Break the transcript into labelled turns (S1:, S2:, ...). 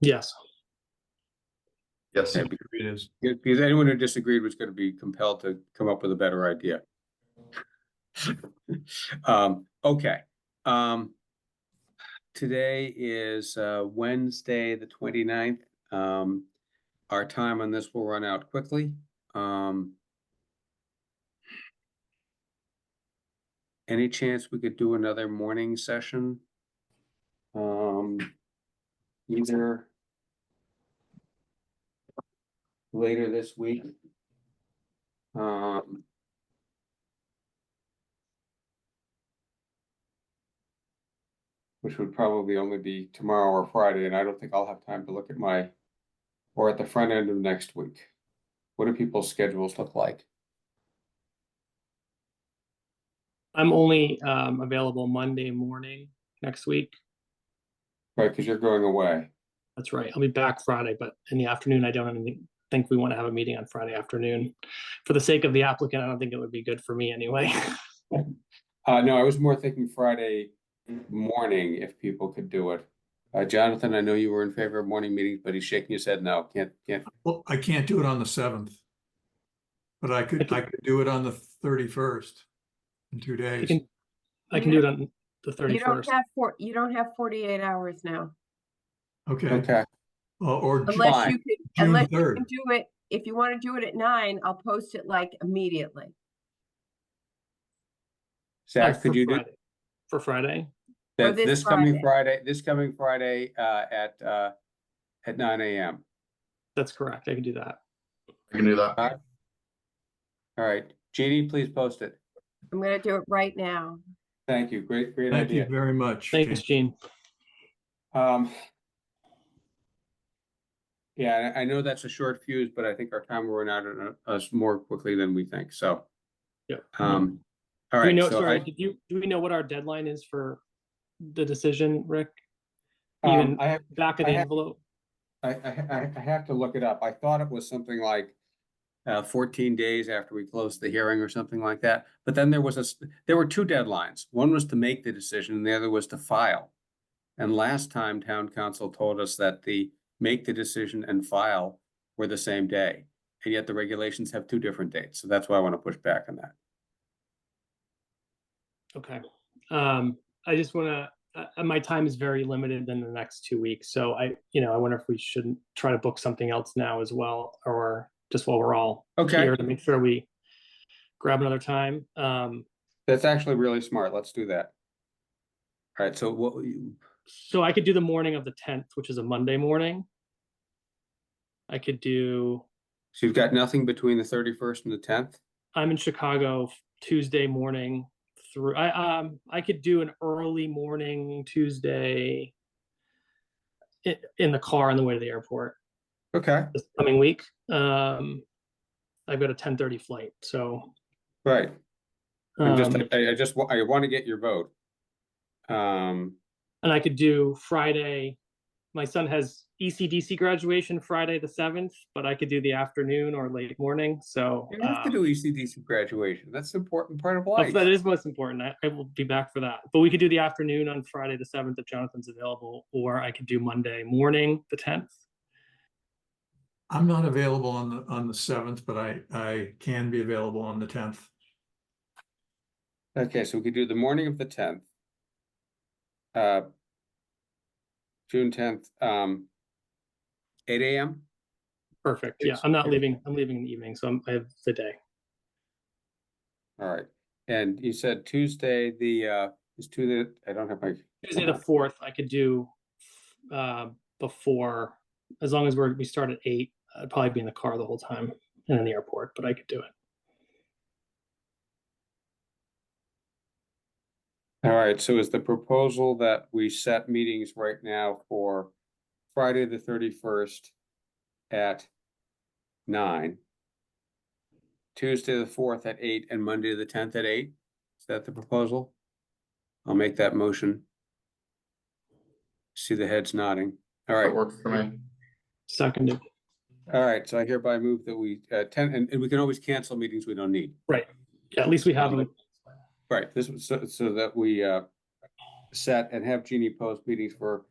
S1: Yes.
S2: Yes,
S3: Yeah, because-
S4: It is.
S3: yeah, Because anyone who disagreed was gonna be compelled to come up with a better idea. Um, okay, um. Today is uh Wednesday, the 29th. Um, our time on this will run out quickly, um. Any chance we could do another morning session? Um, either later this week. Um. Which would probably only be tomorrow or Friday, and I don't think I'll have time to look at my, or at the front end of next week. What do people's schedules look like?
S1: I'm only um, available Monday morning next week.
S3: Right, because you're going away.
S1: That's right. I'll be back Friday, but in the afternoon, I don't even think we want to have a meeting on Friday afternoon. For the sake of the applicant, I don't think it would be good for me anyway.
S3: Uh, no, I was more thinking Friday morning if people could do it. Uh, Jonathan, I know you were in favor of morning meetings, but he's shaking his head no, can't, can't.
S4: Well, I can't do it on the seventh. But I could, I could do it on the thirty-first in two
S1: I
S4: days.
S1: can, I can do it on the
S5: You don't
S1: 31st.
S5: have four, you don't have forty-eight hours now,
S4: Okay,
S3: Okay,
S4: or, or Ju-
S5: unless you
S4: June
S5: can, unless you
S4: 3rd.
S5: can do it, if you want to do it at nine, I'll post it like immediately.
S1: Uh,
S3: Zach,
S1: for
S3: could you do?
S1: Friday. For Friday?
S5: Or
S3: That's
S5: this
S3: this coming
S5: Friday.
S3: Friday, this coming Friday, uh, at, uh, at nine AM.
S1: That's correct. I can do that.
S2: I can do that.
S3: All right, Jeannie, please post it.
S5: I'm gonna do it right now.
S3: Thank you. Great, great
S4: thank you
S3: idea.
S4: very much.
S1: Thanks,
S4: Jane.
S1: Gene.
S3: Um. Yeah, I, I know that's a short fuse, but I think our time will run out on uh, us more quickly than we think, so,
S1: Yeah.
S3: um. All
S1: Do we
S3: right,
S1: know,
S3: so
S1: sorry,
S3: I,
S1: did you, do we know what our deadline is for the decision, Rick?
S3: um,
S1: even-
S3: I have,
S1: Back of
S3: I
S1: the
S3: have-
S1: envelope?
S3: I, I, I- I have to look it up. I thought it was something like. Uh, fourteen days after we closed the hearing or something like that, but then there was a, s- there were two deadlines. One was to make the decision and the other was to file. And last time town council told us that the make the decision and file were the same day. And yet the regulations have two different dates, so that's why I want to push back on that.
S1: Okay. Um, I just want to, my time is very limited in the next two weeks. So I, you know, I wonder if we shouldn't try to book something else now as well, or just while we're all
S3: Okay,
S1: here to make sure we grab another time. Um,
S3: that's actually really smart. Let's do that. All right, so what, you-
S1: so I could do the morning of the 10th, which is a Monday morning. I could do,
S3: so you've got nothing between the thirty-first and the tenth?
S1: I'm in Chicago Tuesday morning through, I, um, I could do an early morning Tuesday in, in the car on the way to the airport.
S3: Okay.
S1: this coming week. Um, I've got a ten thirty flight, so.
S3: Right. I'm just,
S1: um,
S3: I, I just, wa- I want to get your vote. Um,
S1: and I could do Friday. My son has E ECDC graduation Friday the seventh, but I could do the afternoon or late morning. So
S3: you have to
S1: um,
S3: do ECDC graduation. That's an important part of
S1: that's-
S3: life.
S1: that is most important. I, I will be back for that. But we could do the afternoon on Friday the seventh if Jonathan's available, or I could do Monday morning the tenth.
S4: I'm not available on the, on the seventh, but I, I can be available on the tenth.
S3: Okay, so we could do the morning of the tenth. Uh. June tenth, um. Eight AM?
S1: Perfect. Yeah,
S3: Yes.
S1: I'm not leaving. I'm leaving in the evening, so I'm, I have the day.
S3: All right. And you said Tuesday, the, uh, is Tuesday, I don't have my.
S1: Tuesday the fourth, I could do uh, before, as long as we're we start at eight. I'd probably be in the car the whole time and in the airport, but I could do it.
S3: All right, so is the proposal that we set meetings right now for Friday, the thirty-first at nine? Tuesday, the fourth at eight, and Monday, the tenth at eight? Is that the proposal? I'll make that motion. See the heads nodding.
S2: That
S3: All right,
S2: works for me.
S1: Seconded.
S3: all right, so I hereby move that we, uh, ten, and, and we can always cancel meetings we don't need.
S1: Yeah, at least we have them.
S3: Right, this was so, so that we, uh, set and have Jeannie post meetings for